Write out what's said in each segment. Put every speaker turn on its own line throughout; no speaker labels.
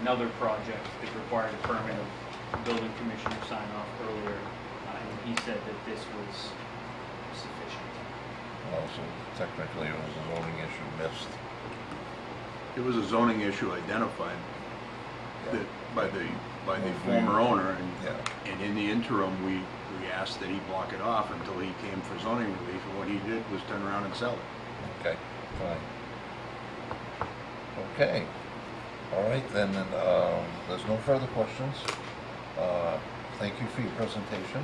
another project that required a permit of building commissioner sign off earlier. uh, And he said that this was sufficient.
Well, Oh, so technically it was a zoning issue missed.
It was a zoning issue identified that, by the, by the former owner, and,
Yeah,
and in the interim, we, we asked that he block it off until he came for zoning relief, and what he did was turn around and sell it.
okay, fine. Okay, all right, then, and, um, there's no further questions. Uh, Thank you for your presentation,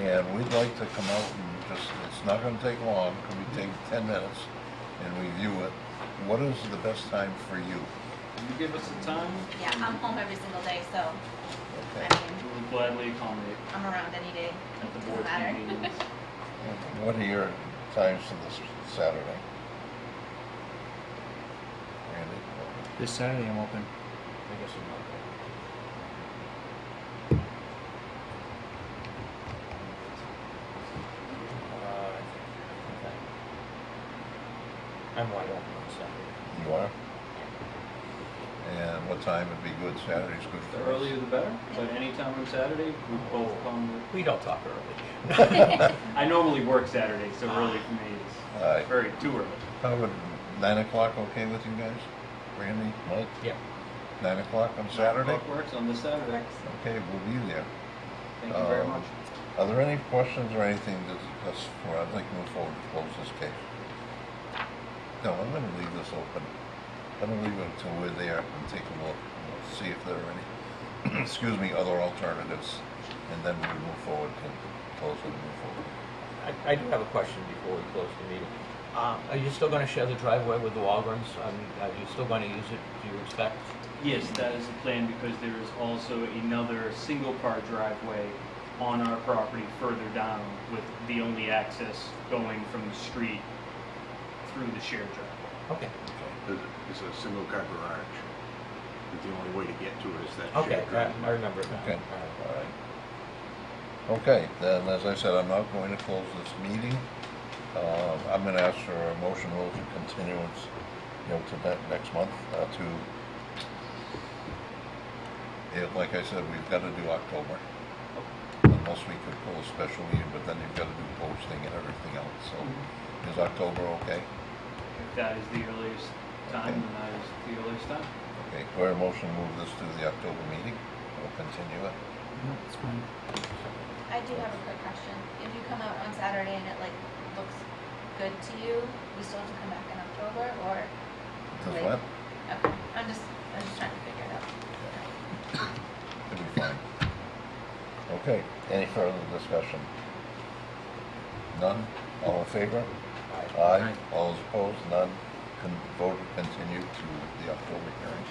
and we'd like to come out and just, it's not gonna take long, could we take ten minutes and review it? What is the best time for you?
Can you give us a time?
Yeah, I'm home every single day, so I
Okay.
mean,
We'll gladly accommodate
I'm around any day.
at the
Doesn't
board
matter.
meetings.
What are your times for this Saturday? Randy?
This Saturday I'm open.
Uh, I'm wide open on Saturday.
You are? And what time would be good? Saturday's good
The
for us.
earlier the better, but any time on Saturday, we
Oh.
both come.
We don't talk early.
I normally work Saturday, so early for me
All right.
is very too early.
How would Uh, nine o'clock okay with you guys? Randy, Mike,
Yeah.
nine o'clock on Saturday?
Clock works on this Saturday.
Okay, we'll be there.
Thank you very
Um,
much.
Are there any questions or anything to discuss before I'd like to move forward to close this case? No, I'm gonna leave this open. I'm gonna leave it until we're there and take a look, and we'll see if there are any, excuse me, other alternatives. And then we move forward to close it and move forward.
I, I do have a question before we close the meeting. Um, are you still gonna share the driveway with the Walgreens? I mean, are you still gonna use it, do you expect?
Yes, that is the plan because there is also another single-car driveway on our property further down with the only access going from the street through the shared driveway.
Okay,
It's- It's a single car garage. But the only way to get to it is that
okay,
shared
I, I
driveway.
remember it now.
Okay.
All right.
All right. Okay, then, as I said, I'm not going to close this meeting. Uh, I'm gonna ask for a motion rule to continuance, you know, to that next month, uh, to, Yeah, like I said, we've gotta do October. Unless we could pull a special meeting, but then you've gotta do posting and everything else, so is October okay?
If that is the earliest time, then that is the earliest time.
Okay, do I hear a motion to move this to the October meeting? We'll continue it.
No, it's fine.
I do have a quick question. If you come out on Saturday and it like looks good to you, we still have to come back in October or?
Does
like-
what?
Okay, I'm just, I'm just trying to figure it out.
It'll be fine. Okay, any further discussion? None? All in favor? Aye. All is opposed? None? Con- Vote to continue to the October hearing.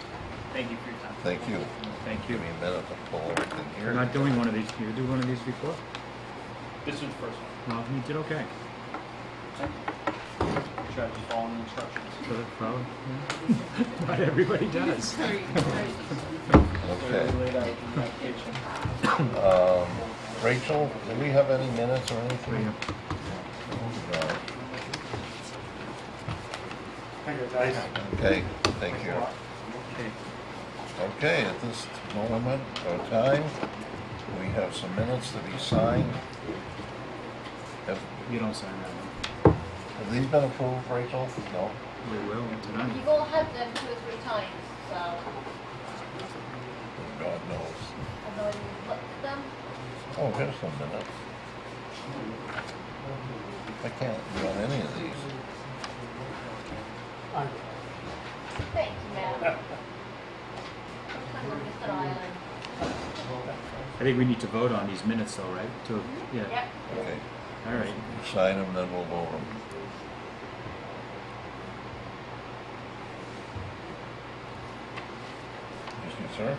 Thank you for your time.
Thank you.
Thank you.
Give me a minute to pull everything
We're
here.
not doing one of these. You do one of these before?
This is the first one.
Well, you did okay.
Should I just follow the instructions?
So that's probably, yeah. not everybody does.
Okay.
Laid out in the application.
Um, Rachel, do we have any minutes or anything? No. Okay, thank you. Okay, at this moment or time, we have some minutes to be signed. Have
You don't sign that
have these been approved, Rachel? No?
one. We will tonight.
You've
Mm.
all had them two or three times, so
God knows.
I've already looked at them.
Oh, here's some minutes. I can't do on any of these.
Thank you, ma'am. I'm on Mr. Island.
I think we need to vote on these minutes though, right? To, yeah,
Yep.
Okay,
all right.
sign them, then we'll vote them. Excuse me, sir?